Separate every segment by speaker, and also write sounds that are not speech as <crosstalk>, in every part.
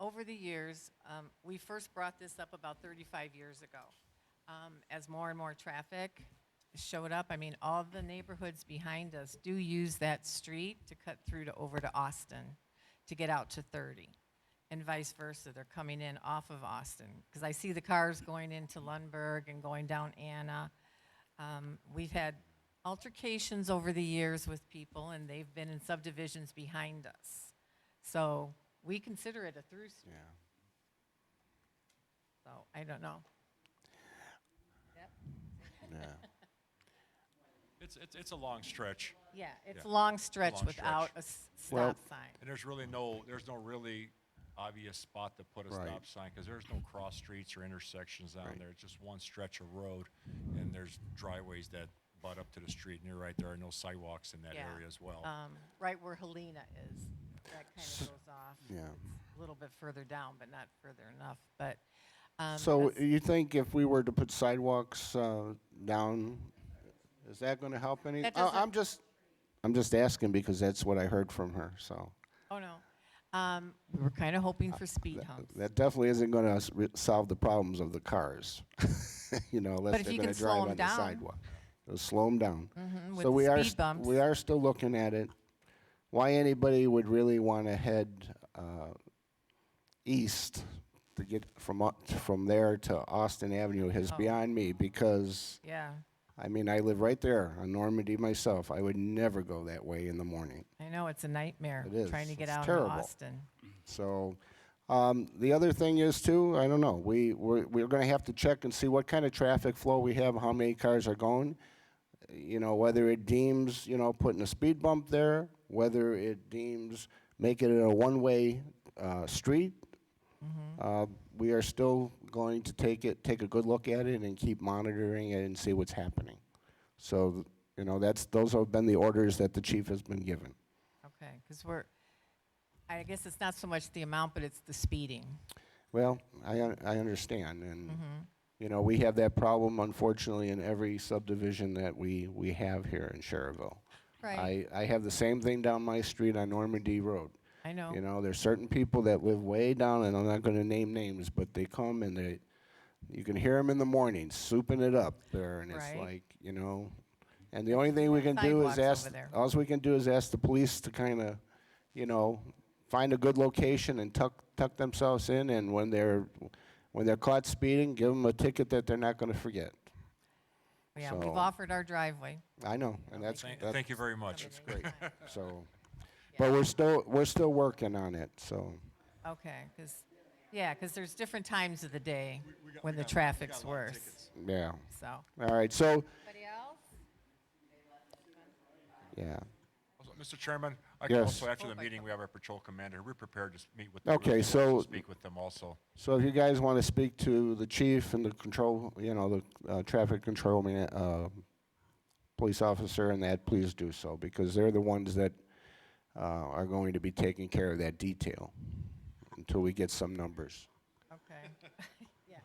Speaker 1: over the years, um, we first brought this up about 35 years ago. Um, As more and more traffic showed up, I mean, all the neighborhoods behind us do use that street to cut through to, over to Austin to get out to 30, and vice versa. They're coming in off of Austin, because I see the cars going into Lundberg and going down Anna. Um, We've had altercations over the years with people, and they've been in subdivisions behind us. So we consider it a through street,
Speaker 2: Yeah.
Speaker 1: so I don't know. Yep.
Speaker 2: Yeah.
Speaker 3: It's, it's, it's a long stretch,
Speaker 1: Yeah, it's a
Speaker 3: Yeah.
Speaker 1: long stretch
Speaker 3: Long
Speaker 1: without
Speaker 3: stretch.
Speaker 1: a s-
Speaker 2: Well-
Speaker 1: stop sign.
Speaker 3: and there's really no, there's no really obvious spot to put a
Speaker 2: Right.
Speaker 3: stop sign, because there's no cross streets or intersections down
Speaker 2: Right.
Speaker 3: there. It's just one stretch of road, and there's driveways that butt up to the street, and you're right, there are no sidewalks in that
Speaker 1: Yeah.
Speaker 3: area as well.
Speaker 1: Um, Right where Helena is, that kind of goes off.
Speaker 2: Yeah.
Speaker 1: It's A little bit further down, but not further enough, but. <laughs> um,
Speaker 2: So
Speaker 1: that's-
Speaker 2: you think if we were to put sidewalks uh, down, is that going to help any?
Speaker 1: That
Speaker 2: I- I'm
Speaker 1: doesn't-
Speaker 2: just, I'm just asking because that's what I heard from her, so.
Speaker 1: Oh, no. Um, We were kind of hoping for speed
Speaker 2: That
Speaker 1: humps.
Speaker 2: that definitely isn't going to solve the problems of the cars, <laughs> you know,
Speaker 1: But
Speaker 2: unless
Speaker 1: if
Speaker 2: they're
Speaker 1: you
Speaker 2: going
Speaker 1: can
Speaker 2: to
Speaker 1: slow 'em
Speaker 2: drive on the
Speaker 1: down. Mm-hmm,
Speaker 2: sidewalk. It'll slow them down.
Speaker 1: with
Speaker 2: So
Speaker 1: the
Speaker 2: we are,
Speaker 1: speed
Speaker 2: st-
Speaker 1: bumps.
Speaker 2: we are still looking at it. Why anybody would really want to head uh, east to get from, au- from there to Austin Avenue is
Speaker 1: Oh.
Speaker 2: beyond me because,
Speaker 1: Yeah,
Speaker 2: I mean, I live right there on Normandy myself. I would never go that way in the morning.
Speaker 1: I know, it's a nightmare.
Speaker 2: It is.
Speaker 1: Trying to get
Speaker 2: It's
Speaker 1: out of
Speaker 2: terrible.
Speaker 1: Austin.
Speaker 2: So, um, the other thing is too, I don't know, we, we're, we're gonna have to check and see what kind of traffic flow we have, how many cars are going. You know, whether it deems, you know, putting a speed bump there, whether it deems making it a one-way, uh, street. Uh, we are still going to take it, take a good look at it and keep monitoring it and see what's happening. So, you know, that's, those have been the orders that the chief has been given.
Speaker 1: Okay, because we're, I guess it's not so much the amount, but it's the speeding.
Speaker 2: Well, I, un- I understand, and, you know, we have that problem unfortunately in every subdivision that we, we have here in Sherrville.
Speaker 1: Right.
Speaker 2: I, I have the same thing down my street on Normandy Road.
Speaker 1: I know.
Speaker 2: You know, there's certain people that live way down, and I'm not gonna name names, but they come and they, you can hear them in the morning souping it up there, and it's
Speaker 1: Right.
Speaker 2: like, you know, and the only thing we can do
Speaker 1: Sidewalks
Speaker 2: is
Speaker 1: over
Speaker 2: ask,
Speaker 1: there.
Speaker 2: all we can do is ask the police to kind of, you know, find a good location and tuck, tuck themselves in, and when they're, when they're caught speeding, give them a ticket that they're not gonna forget.
Speaker 1: Yeah, we've
Speaker 2: So-
Speaker 1: offered our driveway.
Speaker 2: I know, and that's,
Speaker 3: Thank,
Speaker 2: that's
Speaker 3: thank you very much.
Speaker 1: That's great.
Speaker 2: so, but we're still, we're still working on it, so.
Speaker 1: Okay, because, yeah, because there's different times of the day
Speaker 3: We got-
Speaker 1: when
Speaker 3: we
Speaker 1: the
Speaker 3: got- we got
Speaker 1: traffic's
Speaker 3: a lot of
Speaker 1: worse,
Speaker 3: tickets.
Speaker 2: Yeah.
Speaker 1: so.
Speaker 2: All right. So,
Speaker 1: Anybody else?
Speaker 2: yeah.
Speaker 3: Also, Mr. Chairman, I can
Speaker 2: Yes.
Speaker 3: also, after
Speaker 1: Oh,
Speaker 3: the
Speaker 1: my
Speaker 3: meeting,
Speaker 1: God.
Speaker 3: we have our patrol commander. We're prepared to s- meet with.
Speaker 2: Okay,
Speaker 3: we're
Speaker 2: so-
Speaker 3: Speak with them also.
Speaker 2: So if you guys want to speak to the chief and the control, you know, the uh, traffic control man, uh, police officer and that, please do so because they're the ones that uh, are going to be taking care of that detail until we get some numbers.
Speaker 1: Okay, <laughs> yeah.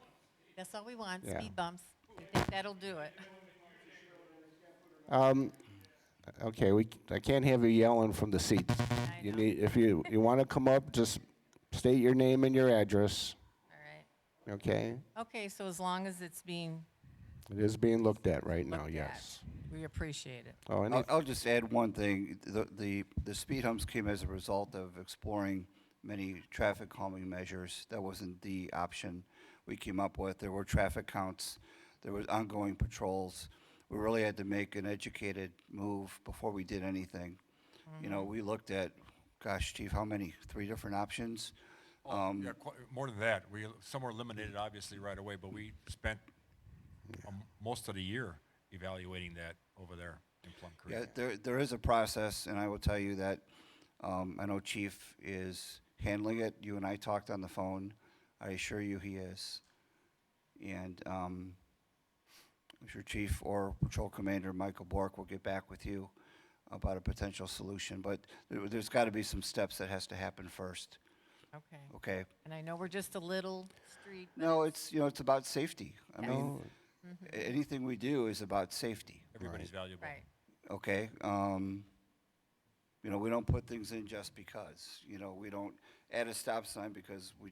Speaker 1: That's all we want,
Speaker 2: Yeah.
Speaker 1: speed bumps. We think that'll do it.
Speaker 2: Okay, we, c- I can't have you yelling from the seats.
Speaker 1: I
Speaker 2: You
Speaker 1: know.
Speaker 2: need, if you, you want to come up, just state your name and your address,
Speaker 1: All right.
Speaker 2: okay?
Speaker 1: Okay, so as long as it's being
Speaker 2: It is being looked at right now,
Speaker 1: looked
Speaker 2: yes.
Speaker 1: at, we appreciate it.
Speaker 2: Oh,
Speaker 4: I'll,
Speaker 2: any,
Speaker 4: I'll just add one thing. The, the, the speed humps came as a result of exploring many traffic calming measures. That wasn't the option we came up with. There were traffic counts, there was ongoing patrols. We really had to make an educated move before we did anything. You know, we looked at, gosh, chief, how many? Three different options? Um,
Speaker 3: Yeah, qu- more than that. We, some were eliminated obviously right away, but we spent um, most of the year evaluating that over there in Plum Creek.
Speaker 4: Yeah, there, there is a process, and I will tell you that, um, I know Chief is handling it. You and I talked on the phone. I assure you he is. And, um, I'm sure Chief or Patrol Commander Michael Bork will get back with you about a potential solution, but there, there's gotta be some steps that has to happen first,
Speaker 1: Okay.
Speaker 4: okay?
Speaker 1: And I know we're just a little street. but
Speaker 4: No, it's, you know, it's about safety. I
Speaker 2: no,
Speaker 4: mean, a- anything we do is about safety.
Speaker 3: Everybody's valuable.
Speaker 1: Right.
Speaker 4: okay? Um, you know, we don't put things in just because, you know, we don't add a stop sign because we